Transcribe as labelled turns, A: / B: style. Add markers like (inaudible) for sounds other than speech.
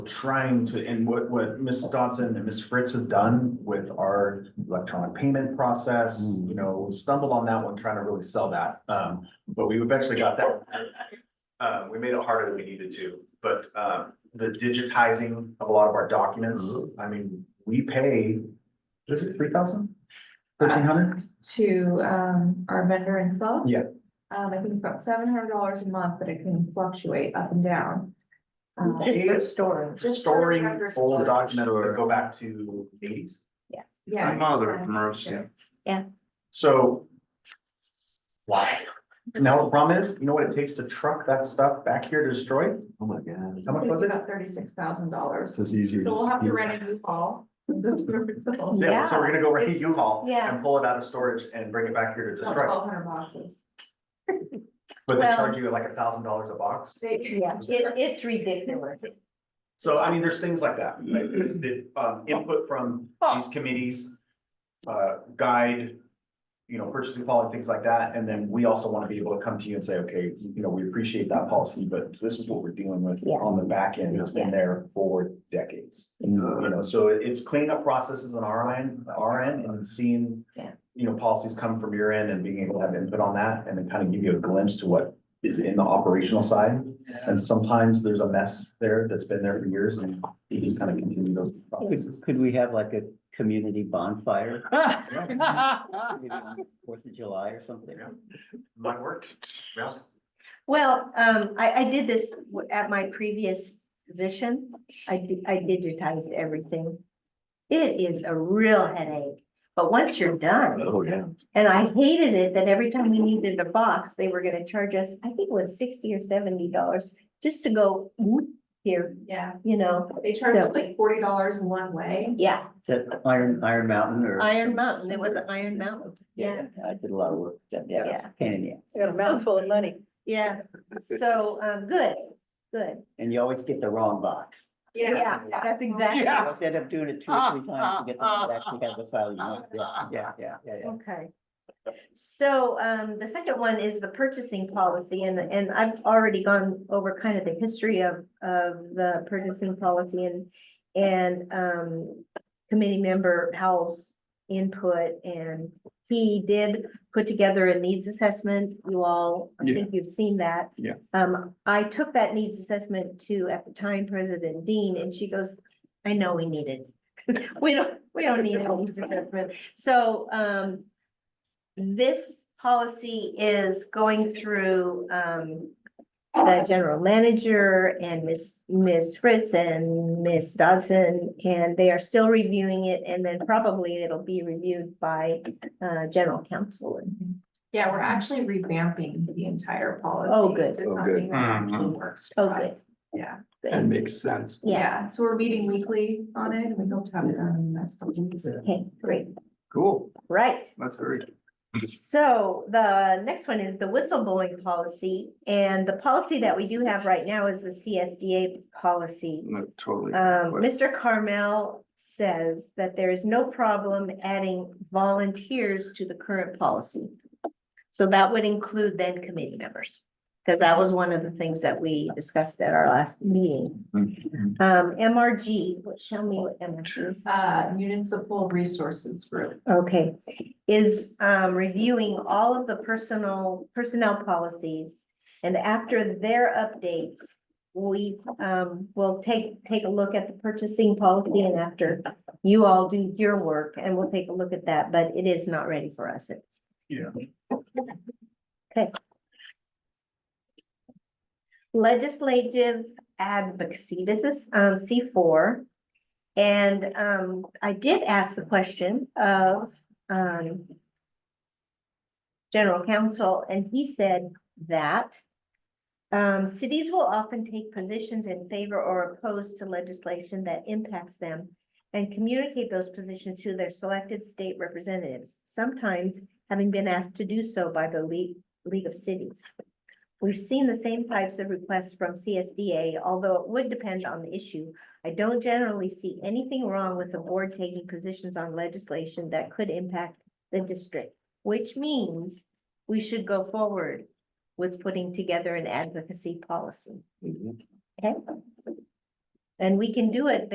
A: trying to, and what, what Mrs. Dodson and Ms. Fritz have done with our electronic payment process,
B: Mm.
A: you know, stumbled on that one, trying to really sell that. Um, but we eventually got that. Uh, we made it harder than we needed to, but, um, the digitizing of a lot of our documents, I mean, we pay, is it three thousand? Thirteen hundred?
C: to um our vendor itself.
A: Yeah.
C: Um, I think it's about seven hundred dollars a month, but it can fluctuate up and down. Um,
A: Uh, Just for
D: storage.
A: Storing old documents that
B: Store.
A: go back to eighties.
D: Yes.
C: yeah.
B: Mother of mercy.
A: So. Why? Now, the problem is, you know what it takes to truck that stuff back here to destroy?
B: Oh, my God.
A: How much was
C: It's
A: it?
C: about thirty-six thousand dollars.
B: This is easier.
C: So we'll have to rent a new
A: (laughs)
C: hall. It's
A: Yeah, so we're gonna go rent a
D: it's-
A: U-Haul
D: yeah. Oh,
A: and pull it out of storage and bring it back here to
C: about
A: destroy.
C: twelve hundred boxes.
A: But they
D: Well-
A: charge you like a thousand dollars a box.
C: They-
D: Yeah, it, it's ridiculous.
A: So I mean, there's things like that, like the um input from
D: Oh.
A: these committees. Uh, guide, you know, purchasing policy, things like that, and then we also want to be able to come to you and say, okay, you know, we appreciate that policy, but this is what we're dealing with
D: Yeah.
A: on the back end, it's been
D: Yeah.
A: there for decades. You know, so it- it's cleanup processes on our end, our end, and seeing.
D: Yeah.
A: You know, policies come from your end and being able to have input on that, and then kind of give you a glimpse to what is in the operational side. And sometimes there's a mess there that's been there for years, and you just kind of continue those processes.
E: Could, could we have like a community bonfire? Maybe on Fourth of July or something?
A: Yeah. Might work. Yeah.
D: Well, um, I, I did this w- at my previous position. I, di- I digitized everything. It is a real headache, but once you're done,
B: Oh, yeah.
D: and I hated it that every time we needed a box, they were gonna charge us, I think it was sixty or seventy dollars just to go whoop here,
C: (laughs) Yeah,
D: you know,
C: they charge us
D: So-
C: like forty dollars one way.
D: yeah.
E: Is that Iron, Iron Mountain or?
D: Iron Mountain, it was Iron Mountain, yeah.
E: I did a lot of work. with them. Yeah, it was a pain in the ass.
F: Got a mouthful of money.
D: Yeah, so, um, good, good.
E: And you always get the wrong box.
D: Yeah, that's exactly.
E: You always end up doing it two or three times to get the,
D: (laughs)
E: to actually have the file you want. Yeah, yeah, yeah, yeah, yeah.
D: Okay. So um, the second one is the purchasing policy and, and I've already gone over kind of the history of, of the purchasing policy and, and um, committee member Howell's input and he did put together a needs assessment. You all, I think you've seen that.
B: Yeah.
D: Um, I took that needs assessment to, at the time, President Dean, and she goes, I know we need it. (laughs) We don't, we don't need a needs assessment. So um. This policy is going through um. The general manager and Miss Ms. Fritz and Miss Dodson, and they are still reviewing it, and then probably it'll be reviewed by uh general counsel. and-
C: Yeah, we're actually revamping the entire policy.
D: Oh, good.
C: To
B: Oh, good.
C: something that actually works
D: Oh,
C: for
D: good.
C: us. Yeah,
B: That makes sense.
D: Yeah,
C: yeah, so we're meeting weekly on it, and we hope to have it done in the next couple weeks.
D: okay, great,
B: Cool.
D: right.
B: That's very.
D: So the next one is the whistleblowing policy, and the policy that we do have right now is the CSDA policy.
B: No, totally.
D: Um,
B: Right.
D: Mr. Carmel says that there is no problem adding volunteers to the current policy. So that would include then committee members, because that was one of the things that we discussed at our last meeting.
B: Mhm.
D: Um, MRG, what- show me what MRG is.
C: Uh, municipal resources group.
D: Okay, is um reviewing all of the personal personnel policies. And after their updates, we um will take take a look at the purchasing policy and after. You all do your work and we'll take a look at that, but it is not ready for us. It's,
B: Yeah.
D: okay. Legislative advocacy, this is um C four. And um, I did ask the question of um. General counsel, and he said that. Um, cities will often take positions in favor or opposed to legislation that impacts them. And communicate those positions to their selected state representatives, sometimes having been asked to do so by the League, League of Cities. We've seen the same types of requests from CSDA, although it would depend on the issue. I don't generally see anything wrong with the board taking positions on legislation that could impact the district, which means we should go forward with putting together an advocacy policy. Okay? And we can do it